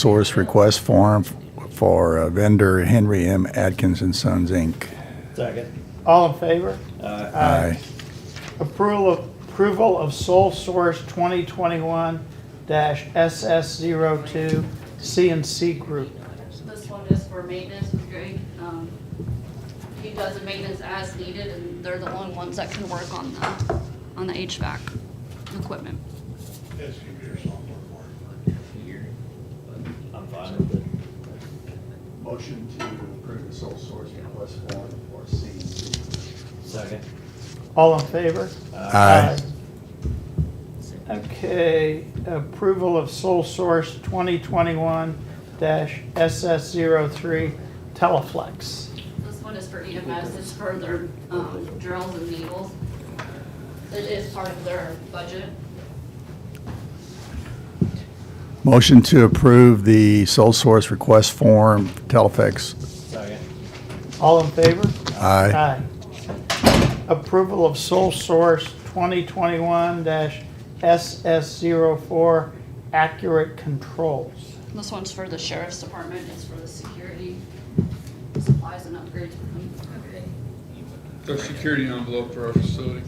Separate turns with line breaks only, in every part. source request form for uh, vendor Henry M. Atkins and Sons, Inc.
Second.
All in favor?
Aye.
Aye.
Approval of, approval of sole source 2021-SS02 CNC Group.
This one is for maintenance with Greg. Um, He does the maintenance as needed, and they're the only ones that can work on the, on the HVAC equipment.
His computer's not working.
I'm fine with it.
Motion to approve the sole source request form for CNC.
Second.
All in favor?
Aye.
Okay, approval of sole source 2021-SS03 Teleflex.
This one is for EMS, it's for their um, drills and needles. It is part of their budget.
Motion to approve the sole source request form, Teleflex.
Second.
All in favor?
Aye.
Aye. Approval of sole source 2021-SS04 accurate controls.
This one's for the sheriff's department, it's for the security supplies and upgrades.
The security envelope for our facility.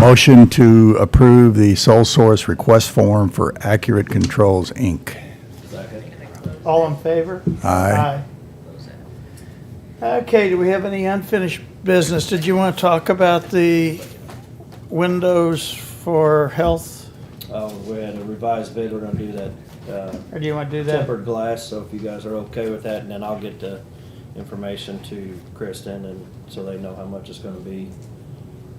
Motion to approve the sole source request form for Accurate Controls, Inc.
Second.
All in favor?
Aye.
Aye. Okay, do we have any unfinished business? Did you want to talk about the windows for health?
Uh, we had a revised bid, we're gonna do that, uh,
Or do you want to do that?
tempered glass, so if you guys are okay with that, and then I'll get the information to Kristen, and so they know how much it's gonna be.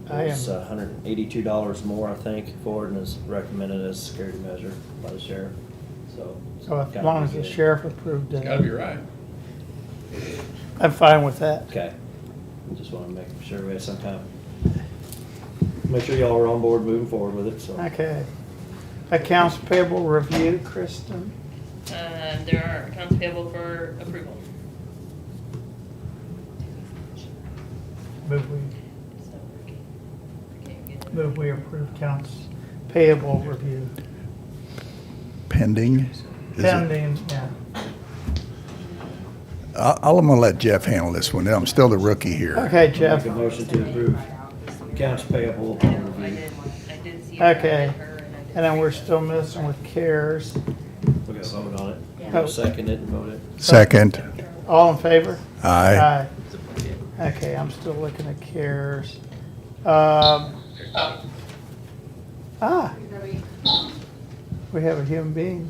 I am-
It's uh, hundred and eighty-two dollars more, I think, for it, and it's recommended as a security measure by the sheriff, so. it's
So Oh, as
gotta
long
be
as the
good.
sheriff approved
Gotta
it,
be right.
I'm fine with that.
Okay, just wanna make sure we had some time. Make sure y'all are on board moving forward with it, so.
Okay. Accounts payable review, Kristen?
Uh, there are accounts payable for approval.
Move we, move we approve accounts payable review.
Pending? Is it-
Pending, yeah.
I- I'll- I'm gonna let Jeff handle this one. I'm still the rookie here.
Okay,
Make
Jeff.
a motion to approve accounts payable
I know, I
review.
did, I did see. it.
Okay.
did
And then we're
see it.
still missing with CARES.
We gotta vote on it.
Yeah.
Second it and vote it.
Second.
All in favor?
Aye.
Aye. Okay, I'm still looking at CARES. Um, Ah, we have a human being.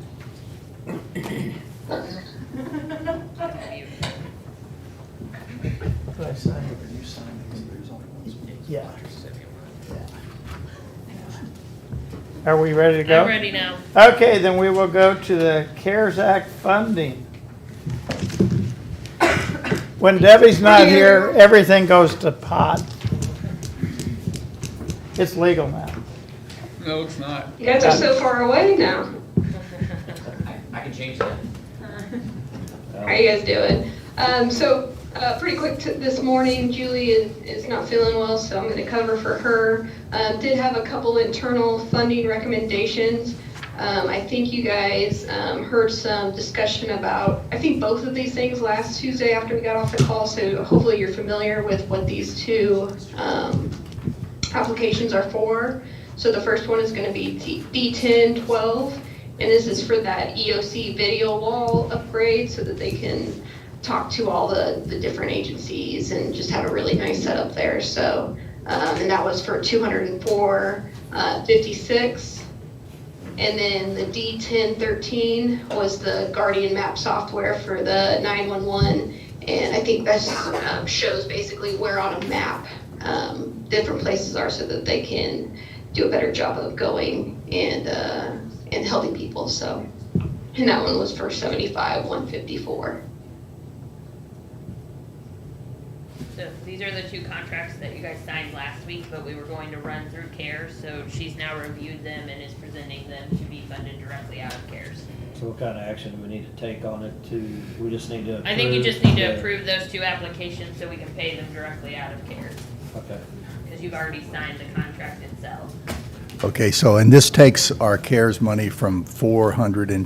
What did I say? Yeah. Yeah. Are we ready to go?
I'm ready now.
Okay, then we will go to the CARES Act funding. When Debbie's not here, everything goes to pot. It's legal now.
No, it's not.
You guys are so far away now.
I can change that.
How you guys doing? Um, so, uh, pretty quick t- this morning, Julie is, is not feeling well, so I'm gonna cover for her. Um, did have a couple internal funding recommendations. Um, I think you guys, um, heard some discussion about, I think both of these things last Tuesday after we got off the call, so hopefully you're familiar with what these two, um, applications are for. So the first one is gonna be D- D10 12, and this is for that EOC video wall upgrade so that they can talk to all the, the different agencies and just have a really nice setup there, so. Um, and that was for 204, uh, 56. And then the D1013 was the Guardian Map software for the 911. And I think that um, shows basically where on a map um, different places are so that they can do a better job of going and, uh, and helping people. So, and that one was for 75, 154.
So these are the two contracts that you guys signed last week, but we were going to run through CARES, so she's now reviewed them and is presenting them to be funded directly out of CARES.
So what kind of action do we need to take on it to, we just need to approve?
I think you just need
the-
to approve those two applications so we can pay them directly out of CARES,
Okay,
because you've already signed the contract itself.
Okay, so, and this takes our CARES money from 400 and